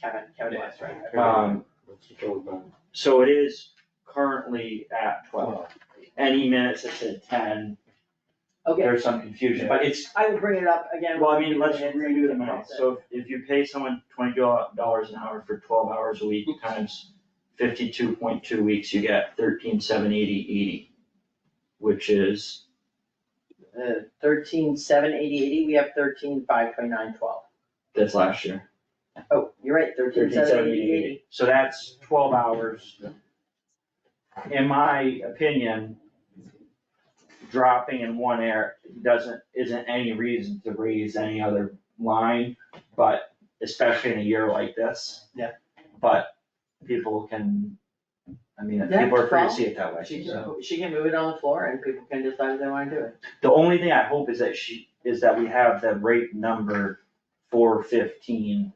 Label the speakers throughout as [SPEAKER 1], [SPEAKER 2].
[SPEAKER 1] Kevin, Kevin West, right?
[SPEAKER 2] Um, so it is currently at twelve. Any minutes that said ten,
[SPEAKER 1] Okay,
[SPEAKER 2] there's some confusion, but it's,
[SPEAKER 1] I will bring it up again.
[SPEAKER 2] well, I mean, let's
[SPEAKER 1] It's-
[SPEAKER 2] redo the minutes. So if if you pay someone twenty dollars an hour for twelve hours a week times fifty-two point two weeks, you get thirteen seven eighty eighty, which is,
[SPEAKER 1] Uh, thirteen, seven, eighty, eighty, we have thirteen, five, twenty-nine, twelve.
[SPEAKER 2] that's last year.
[SPEAKER 1] Oh, you're right, thirteen, seven, eighty, eighty.
[SPEAKER 2] So that's twelve hours. In my opinion, dropping in one air doesn't, isn't any reason to raise any other line, but especially in a year like this.
[SPEAKER 1] Yeah.
[SPEAKER 2] But people can, I mean,
[SPEAKER 1] Yeah,
[SPEAKER 2] people are free to see it that way.
[SPEAKER 1] She
[SPEAKER 2] so.
[SPEAKER 1] can, she can move it on the floor and people can decide if they wanna do it.
[SPEAKER 2] The only thing I hope is that she, is that we have the rate number four fifteen,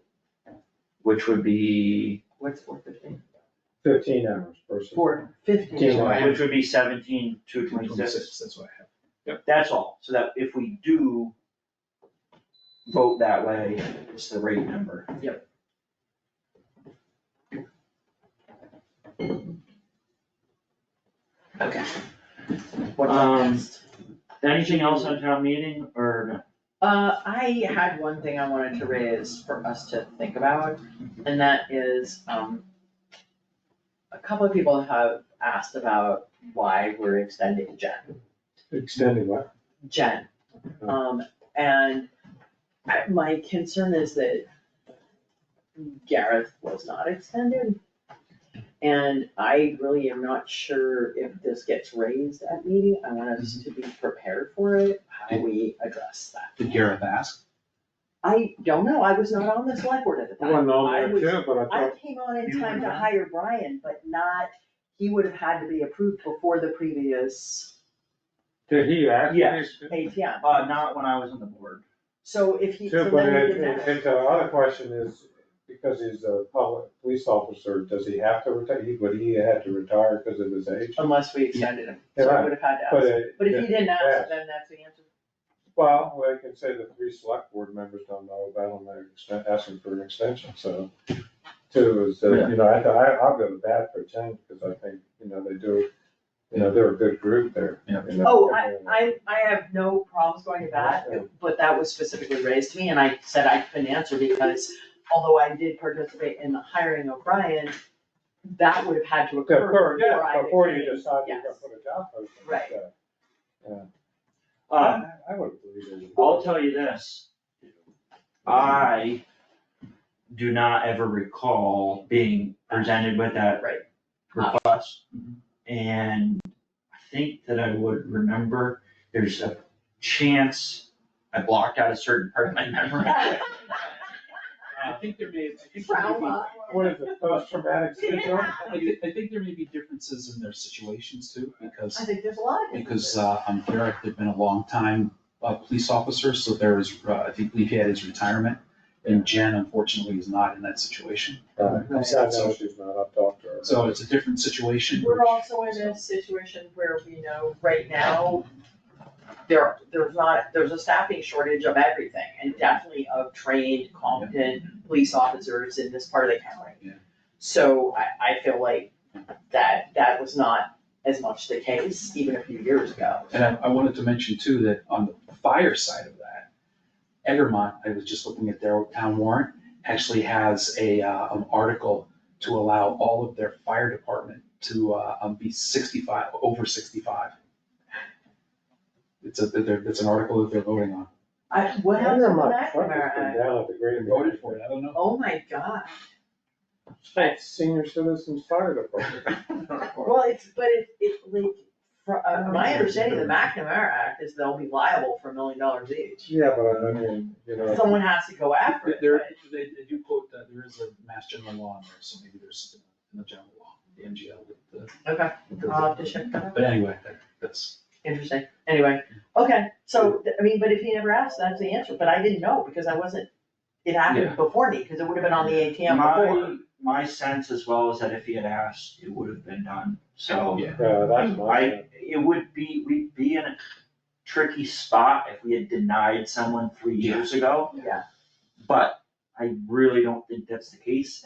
[SPEAKER 2] which would be
[SPEAKER 1] What's four fifteen?
[SPEAKER 3] Fifteen hours per person.
[SPEAKER 1] Four
[SPEAKER 3] Yeah,
[SPEAKER 1] fifteen,
[SPEAKER 3] right.
[SPEAKER 1] right?
[SPEAKER 2] Which would be seventeen to twenty-six,
[SPEAKER 4] Twenty-six, that's what I have.
[SPEAKER 2] that's all, so that if we do vote that way, it's the rate number.
[SPEAKER 1] Okay. What's up
[SPEAKER 2] Um,
[SPEAKER 1] next?
[SPEAKER 2] Anything else on town meeting, or
[SPEAKER 1] Uh, I had one thing I wanted to raise for us to think about, and that is, um, a couple of people have asked about why we're extending Jen.
[SPEAKER 3] Extended what?
[SPEAKER 1] Jen. Um, and I- my concern is that Gareth was not extended. And I really am not sure if this gets raised at meeting, I want us to be prepared for it, how we address that.
[SPEAKER 4] Did Gareth ask?
[SPEAKER 1] I don't know, I was not on the select board at the
[SPEAKER 3] I
[SPEAKER 1] time.
[SPEAKER 3] don't know,
[SPEAKER 1] I
[SPEAKER 3] I
[SPEAKER 1] was-
[SPEAKER 3] can't, but I
[SPEAKER 1] I
[SPEAKER 3] thought,
[SPEAKER 1] came on in
[SPEAKER 2] You
[SPEAKER 1] time
[SPEAKER 2] were
[SPEAKER 1] to
[SPEAKER 2] not?
[SPEAKER 1] hire Brian, but not, he would have had to be approved before the previous
[SPEAKER 3] did he ask?
[SPEAKER 2] Yes.
[SPEAKER 1] ATM.
[SPEAKER 2] no? Uh, not when I was on the board.
[SPEAKER 1] So if he, so
[SPEAKER 3] Too,
[SPEAKER 1] then
[SPEAKER 3] but
[SPEAKER 1] we
[SPEAKER 3] it,
[SPEAKER 1] did that.
[SPEAKER 3] it- it's the other question is, because he's a public police officer, does he have to retire, he, would he have to retire because of his age?
[SPEAKER 1] Unless we extended him, so I
[SPEAKER 3] Right.
[SPEAKER 1] would have had to
[SPEAKER 3] But,
[SPEAKER 1] ask.
[SPEAKER 3] uh,
[SPEAKER 1] But if you didn't
[SPEAKER 3] yeah.
[SPEAKER 1] ask, then that's the answer.
[SPEAKER 3] well, I can say the three select board members don't know about him, they're exten- asking for an extension, so. Two is, uh, you know, I, I, I'll go to bat for ten, because I think, you know, they do, you know, they're a good group there.
[SPEAKER 4] Yeah.
[SPEAKER 3] you know,
[SPEAKER 1] Oh, I,
[SPEAKER 3] and-
[SPEAKER 1] I, I have no problems going to that, but that was specifically raised to me and I said I couldn't answer because although I did participate in the hiring of Brian, that would have had to
[SPEAKER 3] Yeah,
[SPEAKER 1] occur
[SPEAKER 3] Before,
[SPEAKER 1] before I
[SPEAKER 3] yeah, before you
[SPEAKER 1] became-
[SPEAKER 3] decide you're gonna
[SPEAKER 1] yes.
[SPEAKER 3] put a job posting.
[SPEAKER 1] Right.
[SPEAKER 3] yeah.
[SPEAKER 2] Um,
[SPEAKER 3] I would believe it.
[SPEAKER 2] I'll uh, tell you this,
[SPEAKER 3] Uh,
[SPEAKER 2] I do not ever recall being presented with that
[SPEAKER 1] Right.
[SPEAKER 2] request. And I think that I would remember, there's a chance I blocked out a certain part of my memory.
[SPEAKER 4] I think there may, I think there may be,
[SPEAKER 1] Trauma.
[SPEAKER 3] What is it, post-traumatic syndrome?
[SPEAKER 4] I thi- I think there may be differences in their situations too,
[SPEAKER 1] I
[SPEAKER 4] because,
[SPEAKER 1] think there's a lot of.
[SPEAKER 4] because, uh, um, Gareth had been a long time, uh, police officer, so there is, uh, I think he had his retirement. And Jen unfortunately is not in that situation,
[SPEAKER 3] Right.
[SPEAKER 1] Right.
[SPEAKER 3] Uh, I know she's not, I've talked to her.
[SPEAKER 4] so it's a different situation.
[SPEAKER 1] We're also in a situation where we know right now, there, there's not, there's a staffing shortage of everything, and definitely of trained, competent police officers in this part of the
[SPEAKER 4] Yeah.
[SPEAKER 1] county. So I, I feel like that, that was not as much the case even a few years ago.
[SPEAKER 4] And I, I wanted to mention too, that on the fire side of that, Egremont, I was just looking at their town warrant, actually has a, uh, an article to allow all of their fire department to, uh, um, be sixty-five, over sixty-five. It's a, they're, it's an article that they're voting on.
[SPEAKER 1] I, what
[SPEAKER 3] I
[SPEAKER 1] happened to
[SPEAKER 3] remember my truck has been
[SPEAKER 1] McNamara?
[SPEAKER 3] down at the
[SPEAKER 4] They
[SPEAKER 3] Green.
[SPEAKER 4] voted for it, I don't know.
[SPEAKER 1] Oh my god.
[SPEAKER 3] Senior Citizens Fire Department.
[SPEAKER 1] Well, it's, but it's, it's like, fr- uh, my understanding of the McNamara Act is they'll be liable for a million dollars each.
[SPEAKER 3] Yeah, but I mean, you know,
[SPEAKER 1] Someone has to go after it,
[SPEAKER 4] There,
[SPEAKER 1] but-
[SPEAKER 4] they, they do quote, uh, there is a mass general law in there, so maybe there's something in the general law, the MGL with
[SPEAKER 1] Okay,
[SPEAKER 4] the.
[SPEAKER 1] I'll Uh, have to check that out.
[SPEAKER 4] But anyway, that- that's,
[SPEAKER 1] Interesting, anyway, okay, so, th- I mean, but if he never asked, that's the answer, but I didn't know, because I wasn't, it happened
[SPEAKER 4] Yeah.
[SPEAKER 1] before me, because it would have been on the ATM before.
[SPEAKER 2] My, my sense as well is that if he had asked, it would have been done, so.
[SPEAKER 4] yeah.
[SPEAKER 3] yeah, uh, that's my,
[SPEAKER 2] I, it would be, we'd be in a tricky spot if we had denied someone three years ago,
[SPEAKER 1] Yeah,
[SPEAKER 2] but I really don't think that's the case,